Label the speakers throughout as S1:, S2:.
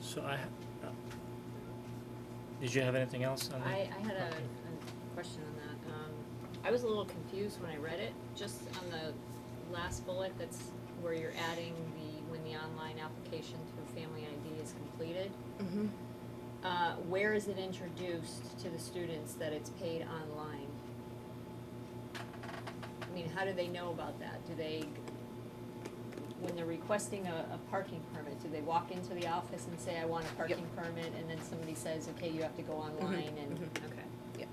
S1: So I, uh, did you have anything else on that?
S2: I, I had a, a question on that. Um, I was a little confused when I read it, just on the last bullet that's where you're adding the, when the online application through Family ID is completed.
S3: Mhm.
S2: Uh, where is it introduced to the students that it's paid online? I mean, how do they know about that? Do they, when they're requesting a, a parking permit, do they walk into the office and say, I want a parking permit? And then somebody says, okay, you have to go online and, okay.
S3: Yep.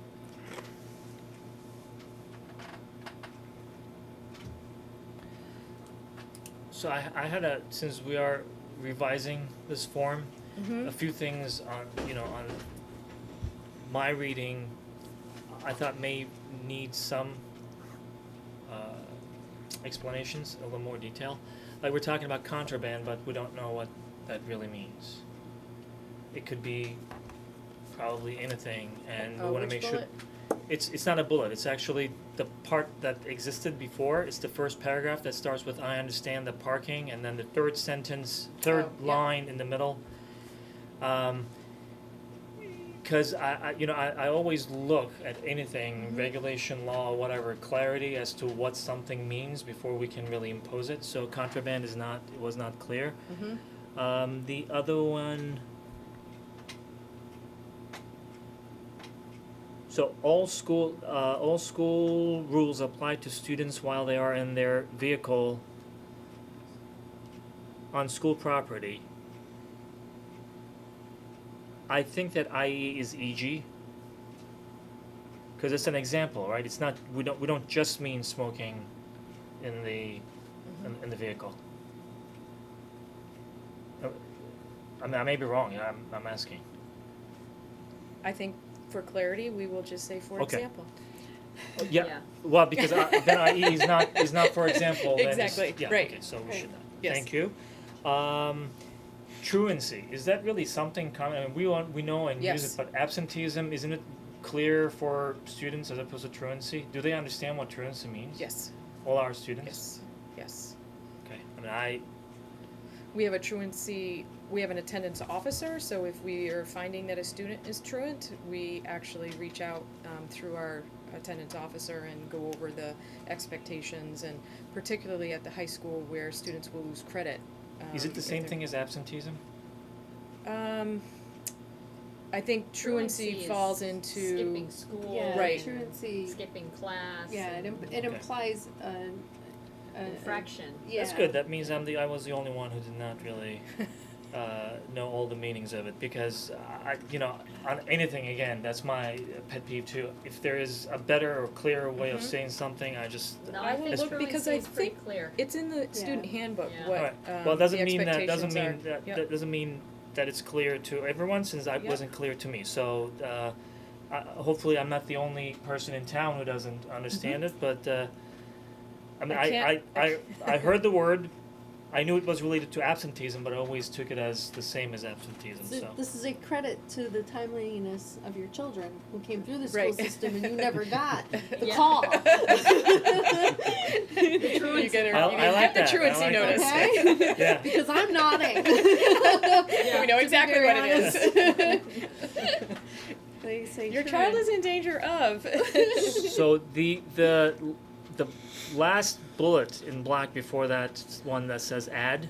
S1: So I, I had a, since we are revising this form,
S3: Mhm.
S1: a few things on, you know, on my reading, I thought may need some uh, explanations, a little more detail. Like we're talking about contraband, but we don't know what that really means. It could be probably anything, and we
S3: Uh,
S1: want to
S3: which
S1: make sure.
S3: bullet?
S1: It's it's not a bullet. It's actually the part that existed before. It's the first paragraph that starts with "I understand the parking," and then the third sentence, third
S3: Oh, yeah.
S1: line in the middle. Um, because I, I, you know, I, I always look at anything,
S3: Mm-hmm.
S1: regulation, law, whatever, clarity as to what something means before we can really impose it. So contraband is not, it was not clear.
S3: Mhm.
S1: Um, the other one. So all school, uh, all school rules apply to students while they are in their vehicle on school property. I think that IE is EG. Cause it's an example, right? It's not, we don't, we don't just mean smoking in the, in, in the vehicle. Uh, I mean, I may be wrong, I'm, I'm asking.
S3: I think for clarity, we will just say, for
S1: Okay.
S3: example.
S1: Oh, Yeah, well, because I, then IE is not, is not for example, then it's,
S3: Exactly,
S1: yeah,
S3: right,
S1: okay, so we
S3: right.
S1: should not,
S3: Yes.
S1: thank you. Um, truancy, is that really something common, I mean, we want, we know and use
S3: Yes.
S1: it, but absenteeism, isn't it clear for students as opposed to truancy? Do they understand what truancy means?
S3: Yes,
S1: All our students?
S3: yes, yes.
S1: Okay, I mean, I,
S3: We have a truancy, we have an attendance officer, so if we are finding that a student is truant, we actually reach out um, through our attendance officer and go over the expectations and particularly at the high school where students will lose credit.
S1: is
S3: um,
S1: it the
S3: if
S1: same
S3: they're-
S1: thing as absenteeism?
S3: Um, I think truancy
S2: is
S3: falls into.
S2: Skipping school.
S4: Yeah,
S3: Right.
S2: and
S4: truancy.
S2: Skipping class.
S4: Yeah, it,
S2: and
S4: im- it
S1: Okay.
S4: implies an, an
S2: Infraction.
S4: Yeah.
S1: That's good. That means I'm the I was the only one who did not really uh, know all the meanings of it because I you know on anything again that's my pet peeve too. If there is a better or clearer way of
S3: Mhm.
S1: saying something, I just
S2: No,
S3: I
S2: I
S3: will
S2: think
S1: look
S3: because
S2: truancy
S3: I
S2: is pretty
S3: think-
S2: clear.
S3: It's in the student
S4: Yeah.
S3: handbook,
S2: Yeah.
S3: what,
S1: Alright. well
S3: um,
S1: it
S3: the
S1: doesn't mean that doesn't
S3: expectations
S1: mean
S3: are.
S1: that,
S3: Yep.
S1: that doesn't mean that it's clear to everyone since I
S3: Yep.
S1: wasn't clear to me. So. Uh, I hopefully, I'm not the only person in town who doesn't understand it. But uh, I mean,
S3: Mm-hmm. I
S1: I
S3: can't-
S1: I, I,
S3: I-
S1: I heard the word. I knew it was related to absenteeism, but I always took it as the same as absenteeism.
S4: So
S1: So
S4: This is a credit to the timeliness of your children who came through the school
S3: Right.
S4: system and you never got the
S2: Yeah.
S4: call.
S3: You get a,
S1: I-
S3: you
S1: I like
S3: get the
S1: that. I
S3: truancy
S1: like
S3: notice.
S4: that.
S1: yeah.
S4: because I'm nodding.
S3: We know
S4: To be
S3: exactly
S4: very
S3: what it is.
S4: They say
S3: Your child
S4: truant.
S3: is in danger of.
S1: so the the the last bullet in black before that one that says add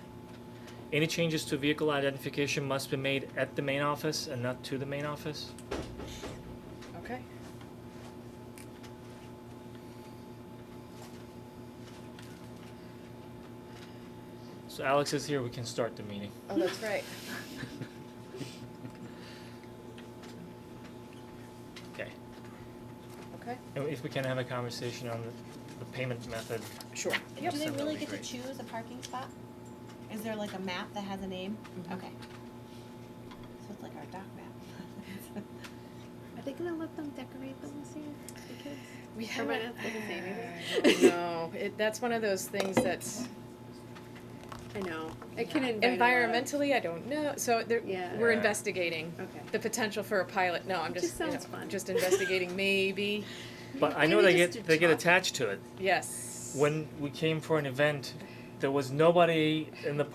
S1: any changes to vehicle identification must be made at the main office and not to the main office
S3: Okay.
S1: so alex is here we can start the meeting
S3: Oh, that's right.
S1: okay
S3: Okay.
S1: and if we can have a conversation on the, the payment method
S3: Sure.
S5: Do they
S1: That would
S5: really
S1: be
S5: get to
S1: great.
S5: choose a parking spot? Is there like a map that has a name?
S4: Mm-hmm.
S3: Mhm.
S5: Okay. So it's like our doc map.
S4: Are they gonna let them decorate them this year? The kids?
S3: We
S4: Or might
S3: haven't.
S4: not look the same either.
S3: No, it, that's one of those things that's
S4: I know. It can invite a lot of-
S3: environmentally, I don't know. So there,
S4: Yeah.
S3: we're
S1: Yeah.
S3: investigating
S4: Okay.
S3: the potential for a pilot. No, I'm
S4: It
S3: just,
S4: just
S3: you know,
S4: sounds fun.
S3: just investigating maybe.
S1: but i
S4: Maybe
S1: know they
S4: just
S1: get
S4: do
S1: they get
S4: top.
S1: attached to it
S3: Yes.
S1: when we came for an event there was nobody in the